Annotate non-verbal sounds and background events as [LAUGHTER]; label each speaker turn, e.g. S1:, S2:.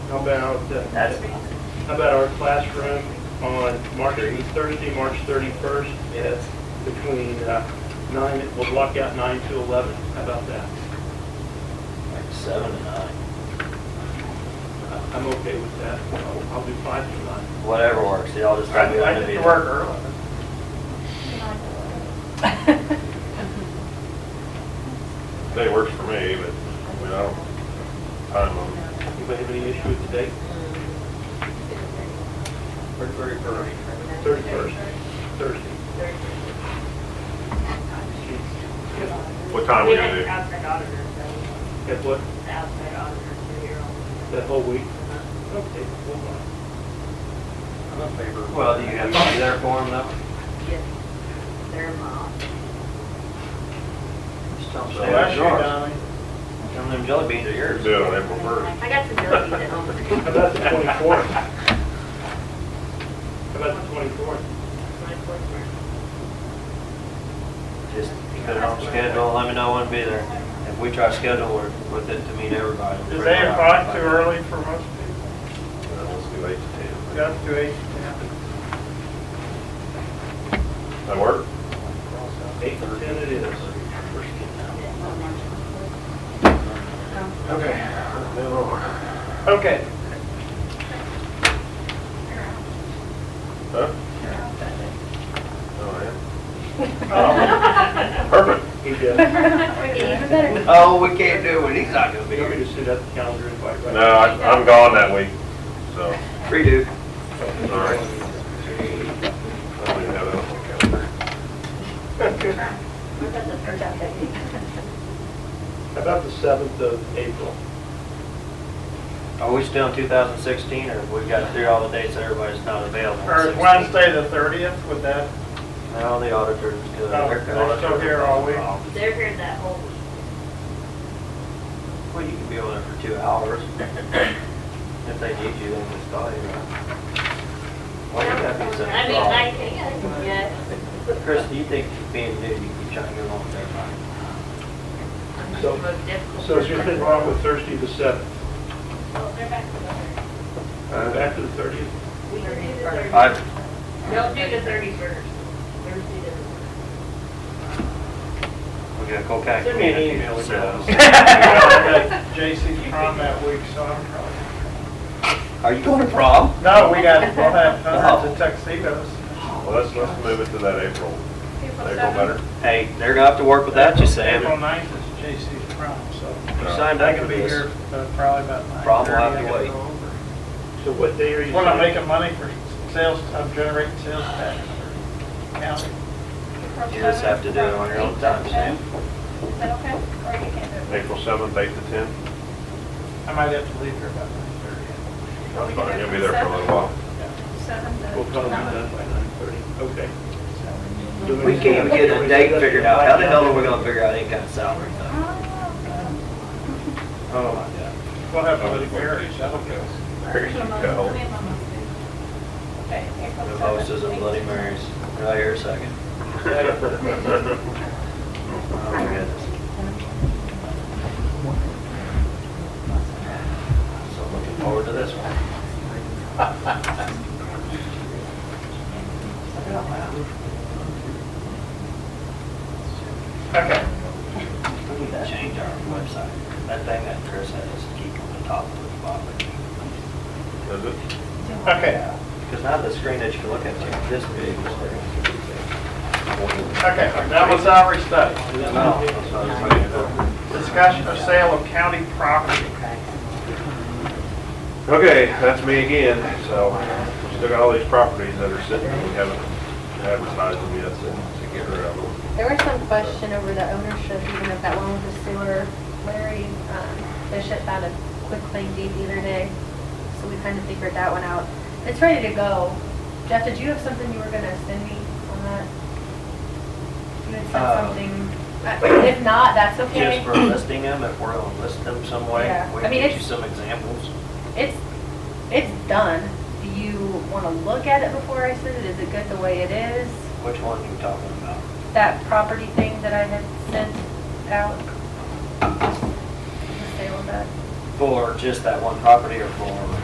S1: How about, uh, how about our classroom on March, Thursday, March 31st? Yes. Between uh, 9, we'll block out 9 to 11. How about that?
S2: Like seven to nine,
S1: Uh, I'm okay with that. I'll I'll do 5 to 9.
S2: whatever works, y'all just try to be
S3: I
S2: able to be
S3: need to
S2: there.
S3: work early.
S4: Day works for me, but, I mean, I don't, time them.
S1: Anybody have any issue with the date? Or 31st? 31st, Thursday.
S4: What time
S5: We
S4: we gonna
S5: had
S4: do?
S5: outside auditors, so
S1: At what,
S5: the outside uh, auditors were here all
S1: that whole week?
S5: the time.
S1: Okay, well, fine.
S3: I'm in favor.
S2: Well, do you have to be there for them though?
S5: Yes, they're in my office.
S3: Just tell them
S2: So
S3: stay
S2: that's
S3: out of
S2: yours.
S3: Donnie.
S2: Some of them jelly beans are yours.
S4: Do it on April first.
S5: I got some jellies at
S4: [LAUGHS]
S5: home.
S1: How about the
S5: [LAUGHS]
S1: 24th? How about the 24th?
S5: My coursework.
S2: Just put it on the schedule, let me know when to be there. If we try to schedule it with it to meet everybody. we'll
S3: Is
S2: bring
S3: eight
S2: it up.
S3: o'clock too
S2: [LAUGHS]
S3: early for most people?
S4: Well, Let's do eight to ten.
S3: Got to eight, yeah.
S4: That work?
S1: Eight to ten it is.
S4: Okay, move on.
S3: Okay.
S4: Huh? Oh, yeah. Perfect.
S3: [LAUGHS]
S1: He does.
S6: Even better.
S2: Oh, we can't do it, he's not gonna be
S1: You want me to
S2: here.
S1: send out the calendar invite right
S4: No, I- I'm gone that week, so,
S2: Redo.
S4: all right. I don't even have it on my calendar. Oh.
S1: How about the 7th of April?
S2: Are we still in 2016, or we've got through all the dates that everybody's not available?
S3: Or is Wednesday the thirtieth, would that,
S2: No, the auditor's good.
S3: No, Oh, they're still here all week.
S2: Well,
S5: They're here that whole week.
S2: you can be on it for two
S5: [COUGHS]
S2: hours. If they need you, then just call you.
S4: Oh,
S2: Why would that be such
S5: I
S2: a
S5: mean, I
S2: problem?
S5: can, yes.
S2: Chris, do you think being new, you can try to get along with everybody?
S1: So-
S5: Most difficult
S1: So is there
S5: person.
S1: anything wrong with Thursday the 7th?
S5: Well, they're back to the
S1: Back to the 30th?
S5: third. We can do the thirty.
S2: I,
S5: Don't do the thirty-first. Thursday the.
S2: we got Colcac.
S1: Send me an email,
S2: So-
S3: [LAUGHS] JC's prom that week, so I'm probably.
S2: Are you going to prom?
S3: No, we got, we'll have hundreds of tuxedos.
S4: Well, let's, let's move it to that April, April better.
S2: Hey, they're gonna have to work with that, you Sam.
S3: April ninth is JC's prom, so
S2: You signed up
S3: I
S2: for
S3: can be
S2: this.
S3: here uh, probably about nine.
S2: Prom will have to wait.
S1: So what day are you?
S3: When I'm
S1: saying?
S3: making money for sales, I'm generating sales tax for county.
S2: You just have to do it on your own time, Sam.
S6: Is that okay? Or you can't do it?
S4: April seventh, eight to ten.
S3: I might have to leave here about nine thirty.
S4: That's fine, you'll be there for a little while.
S6: Seven to-
S1: We'll probably be done by 9:30. Okay. Do
S2: We can't even get a date figured out. How the hell are we gonna figure out any kind of salary thing? Oh, my God.
S3: We'll have to leave here, that'll go.
S4: There you go.
S6: Okay, April
S2: The
S6: seventh.
S2: most is a Bloody Marys. Right here, a second. Oh, my goodness. So looking forward to this one.
S3: Okay.
S2: We need to change our website. That thing that Chris had us keep on the top of the bottom.
S4: Is it?
S3: Okay,
S2: Because now the screen that you can look at, like this big.
S3: okay, that was our study.
S2: No, that's what I'm saying.
S3: Discussion of sale of county property.
S4: Okay, that's me again, so still got all these properties that are sitting, we haven't advertised them yet, so to get rid of them.
S7: There was some question over the ownership, even if that one was a sewer. Larry um, Bishop found a quick claim deed the other day, so we kind of figured that one out. It's ready to go. Jeff, did you have something you were gonna send me on that? You had said
S2: Uh,
S7: something, Uh, if not, that's okay.
S2: Just for listing them, if we're gonna list them some way,
S7: Yeah.
S2: we
S7: I
S2: can
S7: mean,
S2: get you
S7: it's-
S2: some examples.
S7: It's, it's done. Do you wanna look at it before I send it? Is it good the way it is?
S2: Which one are you talking about?
S7: That property thing that I had sent out? The sale of that?
S2: For just that one property or for